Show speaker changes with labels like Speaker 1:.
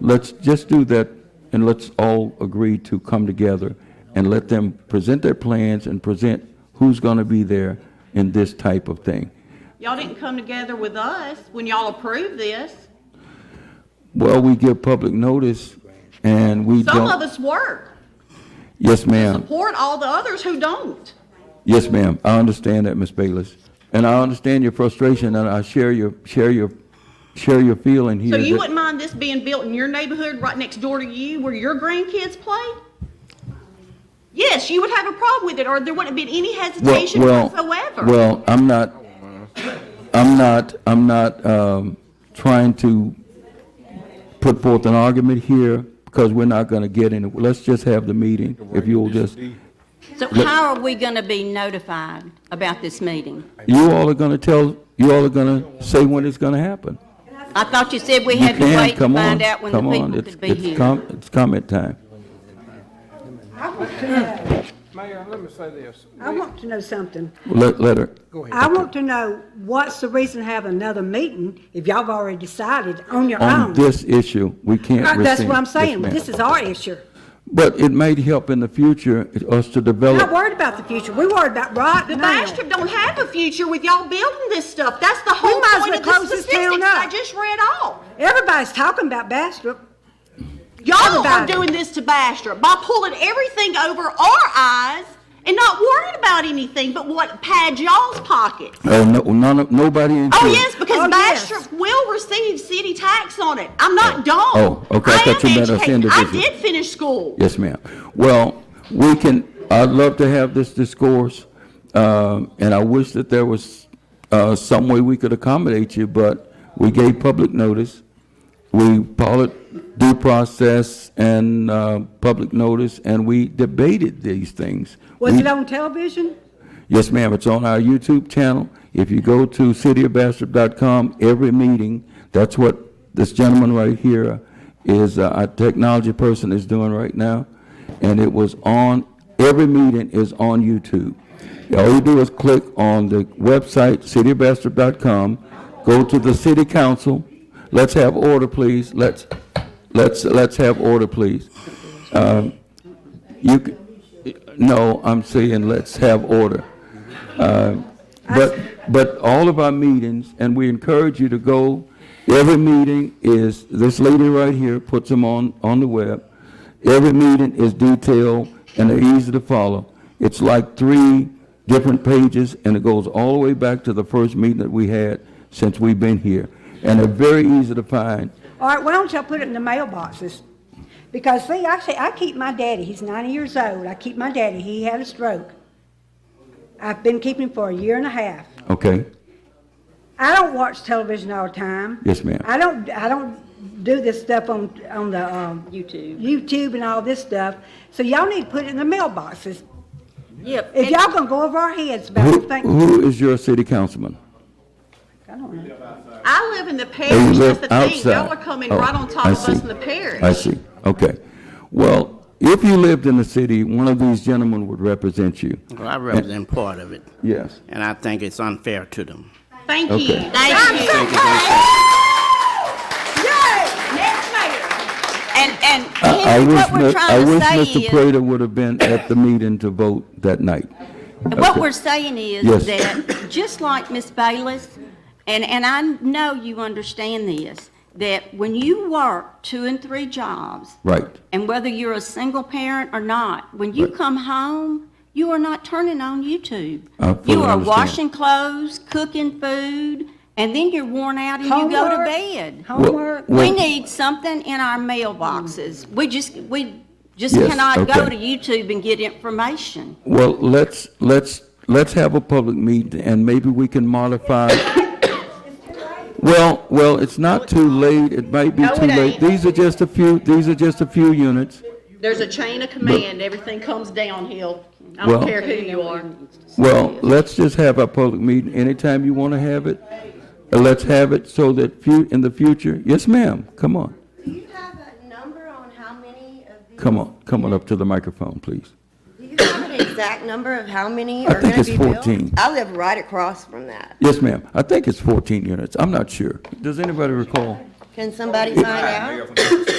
Speaker 1: let's just do that, and let's all agree to come together and let them present their plans and present who's gonna be there in this type of thing.
Speaker 2: Y'all didn't come together with us when y'all approved this.
Speaker 1: Well, we give public notice, and we
Speaker 2: Some of
Speaker 1: don't.
Speaker 2: us work,
Speaker 1: Yes, ma'am.
Speaker 2: support all the others who don't.
Speaker 1: Yes, ma'am. I understand that, Ms. Bayless. And I understand your frustration, and I share your, share your, share your feeling here.
Speaker 2: So you
Speaker 1: that-
Speaker 2: wouldn't mind this being built in your neighborhood right next door to you where your grandkids play? Yes, you would have a problem with it, or there wouldn't have been any
Speaker 1: Well,
Speaker 2: hesitation
Speaker 1: well,
Speaker 2: whatsoever.
Speaker 1: well, I'm not, I'm not, I'm not um, trying to put forth an argument here because we're not going to get any, let's just have the meeting, if you'll just,
Speaker 3: So how are we going to be notified about this meeting?
Speaker 1: you all are going to tell, you all are going to say when it's going to happen.
Speaker 3: I thought you said we
Speaker 1: You
Speaker 3: had to
Speaker 1: can,
Speaker 3: wait to
Speaker 1: come on,
Speaker 3: find out when the
Speaker 1: come on,
Speaker 3: people
Speaker 1: it's,
Speaker 3: could be
Speaker 1: it's
Speaker 3: here.
Speaker 1: com, it's comment time.
Speaker 4: Mayor, let me say this.
Speaker 5: I want to know something.
Speaker 1: Let, let her,
Speaker 5: I want to know what's the reason to have another meeting if y'all have already decided on your
Speaker 1: on
Speaker 5: own?
Speaker 1: this issue, we can't
Speaker 5: Uh,
Speaker 1: rescind.
Speaker 5: That's what I'm
Speaker 1: Yes,
Speaker 5: saying.
Speaker 1: ma'am.
Speaker 5: This is our issue.
Speaker 1: But it might help in the future us to
Speaker 5: We're
Speaker 1: develop.
Speaker 5: not worried about the future. We're worried about right
Speaker 2: The
Speaker 5: now.
Speaker 2: Bastrop don't have a future with y'all building this stuff. That's the whole
Speaker 5: might as
Speaker 2: point
Speaker 5: well
Speaker 2: of the
Speaker 5: close this town
Speaker 2: statistics I
Speaker 5: up.
Speaker 2: just read off.
Speaker 5: Everybody's talking about Bastrop.
Speaker 2: Y'all are
Speaker 5: Everybody.
Speaker 2: doing this to Bastrop by pulling everything over our eyes and not worrying about anything but what pad y'all's pocket.
Speaker 1: Oh, no, none of, nobody in.
Speaker 2: Oh, yes, because
Speaker 5: Oh, yes.
Speaker 2: Bastrop will receive city tax on it. I'm not dumb.
Speaker 1: Oh, okay, I
Speaker 2: am
Speaker 1: thought you meant us
Speaker 2: educated. I
Speaker 1: individually.
Speaker 2: did finish school.
Speaker 1: Yes, ma'am. Well, we can, I'd love to have this discourse, um, and I wish that there was uh, some way we could accommodate you, but we gave public notice. We followed due process and uh, public notice, and we debated these things.
Speaker 5: Was
Speaker 1: We-
Speaker 5: it on television?
Speaker 1: Yes, ma'am, it's on our YouTube channel. If you go to cityofbastrop.com, every meeting, that's what this gentleman right here is, uh, our technology person is doing right now. And it was on, every meeting is on YouTube. All you do is click on the website, cityofbastrop.com, go to the city council. Let's have order, please. Let's, let's, let's have order, please. Um, You, c- no, I'm saying let's have order. Uh, But, but all of our meetings, and we encourage you to go, every meeting is, this lady right here puts them on, on the web. Every meeting is detailed and they're easy to follow. It's like three different pages, and it goes all the way back to the first meeting that we had since we've been here. And they're very easy to find.
Speaker 5: All right, why don't y'all put it in the mailboxes? Because see, I say, I keep my daddy, he's ninety years old, I keep my daddy, he had a stroke. I've been keeping him for a year and a half.
Speaker 1: Okay?
Speaker 5: I don't watch television all the time.
Speaker 1: Yes, ma'am.
Speaker 5: I don't, I don't do this stuff on, on the, um,
Speaker 3: YouTube.
Speaker 5: YouTube and all this stuff. So y'all need to put it in the mailboxes.
Speaker 3: Yep.
Speaker 5: If y'all gonna go over our heads
Speaker 1: Who,
Speaker 5: about things,
Speaker 1: who is your city councilman?
Speaker 5: I don't know.
Speaker 2: I live in the
Speaker 1: They
Speaker 2: parish. That's
Speaker 1: live
Speaker 2: the thing.
Speaker 1: outside.
Speaker 2: Y'all are coming
Speaker 1: Oh,
Speaker 2: right on top
Speaker 1: I
Speaker 2: of
Speaker 1: see.
Speaker 2: us in the parish.
Speaker 1: I see, okay. Well, if you lived in the city, one of these gentlemen would represent you.
Speaker 6: Well, I represent part of it,
Speaker 1: Yes.
Speaker 6: and I think it's unfair to them.
Speaker 2: Thank
Speaker 1: Okay.
Speaker 2: you. Thank you.
Speaker 5: Yay!
Speaker 2: Next mayor.
Speaker 3: And, and
Speaker 1: I I
Speaker 3: Henry,
Speaker 1: wish,
Speaker 3: what we're
Speaker 1: Mi- I
Speaker 3: trying to
Speaker 1: wish
Speaker 3: say
Speaker 1: Mr.
Speaker 3: is.
Speaker 1: Prater would have been at the meeting to vote that night.
Speaker 3: What we're saying is
Speaker 1: Yes.
Speaker 3: that, just like Ms. Bayless, and, and I know you understand this, that when you work two and three jobs,
Speaker 1: Right,
Speaker 3: and whether you're a single parent or not, when you
Speaker 1: Right.
Speaker 3: come home, you are not turning on YouTube.
Speaker 1: I fully
Speaker 3: You are
Speaker 1: understand.
Speaker 3: washing clothes, cooking food, and then you're worn out and you go to
Speaker 5: Homework.
Speaker 3: bed.
Speaker 5: Homework,
Speaker 1: Well-
Speaker 3: We need something in our mailboxes. We just, we just
Speaker 1: Yes,
Speaker 3: cannot go
Speaker 1: okay.
Speaker 3: to YouTube and get information.
Speaker 1: well, let's, let's, let's have a public meeting, and maybe we can modify. Well, well, it's not too late, it might be
Speaker 2: No, it
Speaker 1: too late.
Speaker 2: ain't.
Speaker 1: These are just a few, these are just a few units.
Speaker 2: There's a chain of command. Everything comes downhill. I
Speaker 1: Well-
Speaker 2: don't care who you are.
Speaker 1: Well, let's just have our public meeting anytime you want to have it. Uh, Let's have it so that fu- in the future, yes, ma'am, come on,
Speaker 7: Do you have a number on how many of these?
Speaker 1: come on, come on up to the microphone, please.
Speaker 7: Do you have an exact number of how many
Speaker 1: I
Speaker 7: are
Speaker 1: think
Speaker 7: going to
Speaker 1: it's
Speaker 7: be built?
Speaker 1: 14.
Speaker 7: I live right across from that.
Speaker 1: Yes, ma'am, I think it's 14 units, I'm not sure. Does anybody recall?
Speaker 7: Can somebody find out?